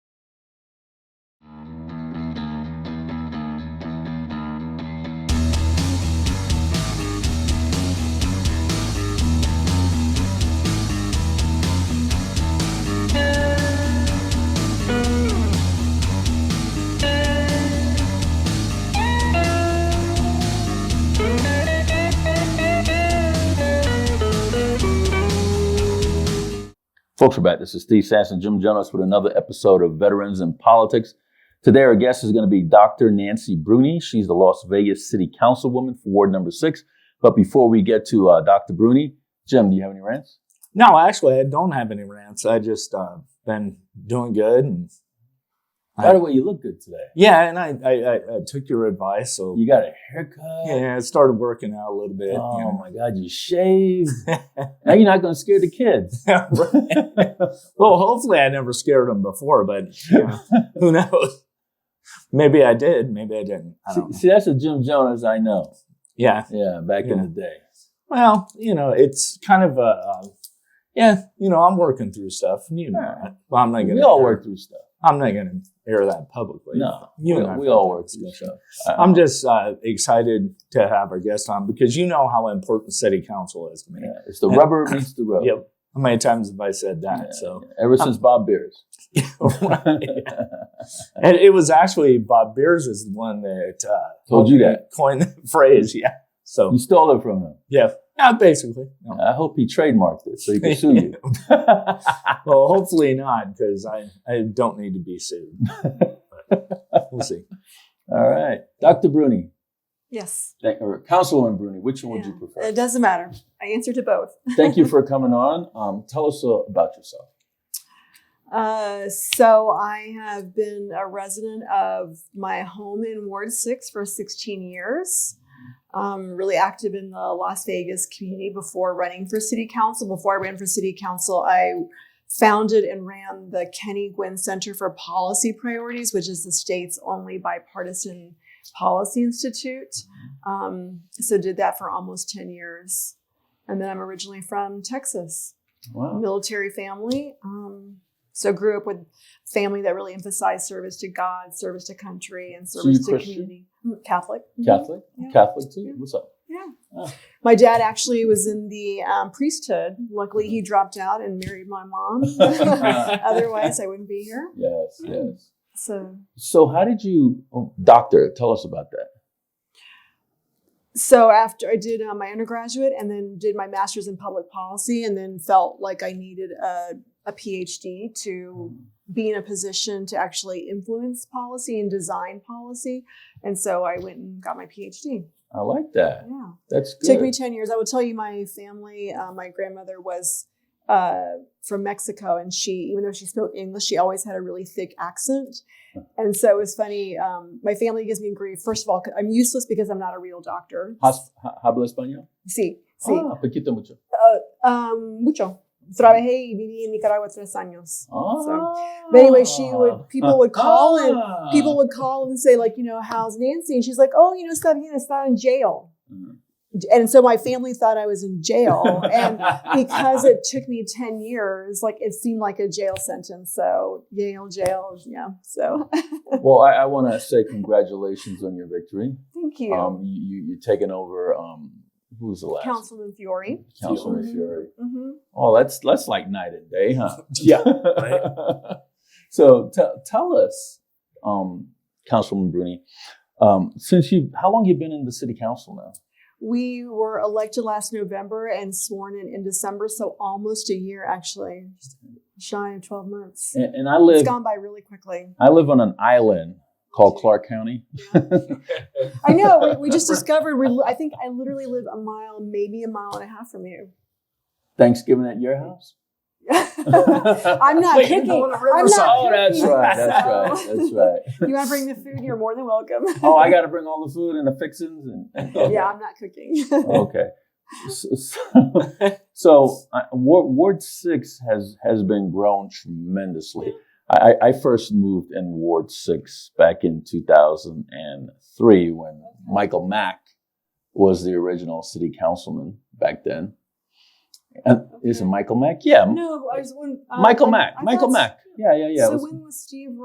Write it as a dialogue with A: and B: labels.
A: Folks, we're back. This is Steve Sass and Jim Jonas with another episode of Veterans in Politics. Today, our guest is going to be Dr. Nancy Bruni. She's the Las Vegas City Councilwoman for Ward Number 6. But before we get to uh, Dr. Bruni, Jim, do you have any rants?
B: No, actually, I don't have any rants. I just uh, been doing good, and
A: By the way, you look good today.
B: yeah, and I I, I, I took your advice, so
A: You got a haircut.
B: yeah, I started working out a little bit.
A: Oh my God, you shaved. now you're not going to scare the kids.
B: you know. well, hopefully, I never scared them before, but you know, who knows? Maybe I did. Maybe I didn't. I don't
A: See,
B: know.
A: see, that's a Jim Jonas I know.
B: Yeah.
A: Yeah, back in
B: Yeah.
A: the day.
B: Well, you know, it's kind of a. Uh, yeah, you know, I'm working through stuff. You know,
A: Yeah.
B: well, I'm not gonna.
A: We all
B: air-
A: work through stuff.
B: I'm not gonna air that publicly.
A: No,
B: you
A: we,
B: and I
A: we
B: both
A: all
B: have
A: work
B: this
A: through
B: issue.
A: stuff. Um,
B: I'm just uh, excited to have our guest on because you know how important city council is to me.
A: Yeah, it's the rubber meets the road.
B: Yep. How many times have I said that?
A: Yeah,
B: so,
A: yeah. ever since Bob Beers.
B: and it was actually Bob Beers is the one that uh,
A: Told you that.
B: coined the phrase. Yeah. So
A: You stole it from him.
B: yeah, yeah, basically. No.
A: I hope he trademarked it so he can sue you.
B: Well, hopefully not because I I don't need to be sued. But we'll see.
A: All right. Dr. Bruni,
C: Yes.
A: thank, or Councilwoman Bruni, which one would you
C: Yeah.
A: prefer?
C: It doesn't matter. I answer to both.
A: Thank you for coming on. Um, tell us uh, about yourself.
C: Uh, so I have been a resident of my home in Ward 6 for 16 years. Um, really active in the Las Vegas community before running for city council. Before I ran for city council, I founded and ran the Kenny Gwynn Center for Policy Priorities, which is the state's only bipartisan policy institute. Um, so did that for almost 10 years. And then I'm originally from Texas
A: Wow.
C: military family. Um, so grew up with family that really emphasized service to God, service to country, and
A: you
C: service to
A: Christian?
C: community. Mm, Catholic. Mhm.
A: Catholic?
C: Yeah.
A: Catholic too?
C: Yeah.
A: What's up?
C: My dad actually was in the um, priesthood. Luckily,
A: Mm-hmm.
C: he dropped out and married my mom. Otherwise, I wouldn't be here.
A: Yes, yes.
C: So,
A: So, how did you, oh, doctor, tell us about that.
C: so after I did uh, my undergraduate and then did my master's in public policy, and then felt like I needed a, a PhD to be in a position to actually influence policy and design policy. And so I went and got my PhD.
A: I like that.
C: Yeah.
A: That's good.
C: Took me 10 years. I will tell you, my family, uh, my grandmother was uh, from Mexico, and she, even though she spoke English, she always had a really thick accent. And so it was funny. Um, my family gives me grief. First of all, 'cause I'm useless because I'm not a real doctor.
A: Has- ha- ¿Habla español?
C: Sí, sí.
A: Ah, poquito mucho.
C: Um, mucho. Trabajé y viví en Nicaragua tres años.
A: Ah.
C: But anyway, she would- people would call and
A: Ah.
C: People would call and say, like, you know, how's Nancy? And she's like, oh, you know, está bien, está in jail.
A: Mhm.
C: and so my family thought I was in jail. And because it took me 10 years, like it seemed like a jail sentence. So Yale jail, yeah. So
A: well, I, I want to say congratulations on your victory.
C: thank you.
A: Um, you, you you're taking over. Um, who was the last?
C: Councilman Fiore.
A: Councilman
C: Fiore.
A: Fury.
C: hmm
A: Oh, that's that's like night and day, huh?
B: Yeah,
A: so t- tell us, um, Councilman Bruni, um, since you how long you been in the city council now?
C: We were elected last November and sworn in in December. So almost a year, actually, Just shy of 12 months.
A: And, and I
C: It's
A: live
C: gone by really quickly.
A: I live on an island called Clark County.
C: I know. We, we just discovered. We, li- I think I literally live a mile, maybe a mile and a half from you.
A: Thanksgiving at your house.
C: I'm not
B: Wait,
C: cooking.
B: you know, on the
C: I'm
B: riverside.
C: not
A: Oh, that's
C: cooking,
A: right. That's right.
C: so-
A: That's right.
C: you want to bring the food? You're more than welcome.
A: Oh, I got to bring all the food and the fixings and.
C: yeah, I'm not cooking.
A: okay. So, so, so, uh, Ward, Ward Six has has been grown tremendously. I, I I first moved in Ward Six back in 2003 when Michael Mack was the original city councilman back then. And is it
C: Okay.
A: Michael Mack? Yeah,
C: no, I was when, uh,
A: Michael
C: I-
A: Mack.
C: I
A: Michael
C: thought-
A: Mack. Yeah, yeah, yeah. it
C: so
A: was-
C: when was Steve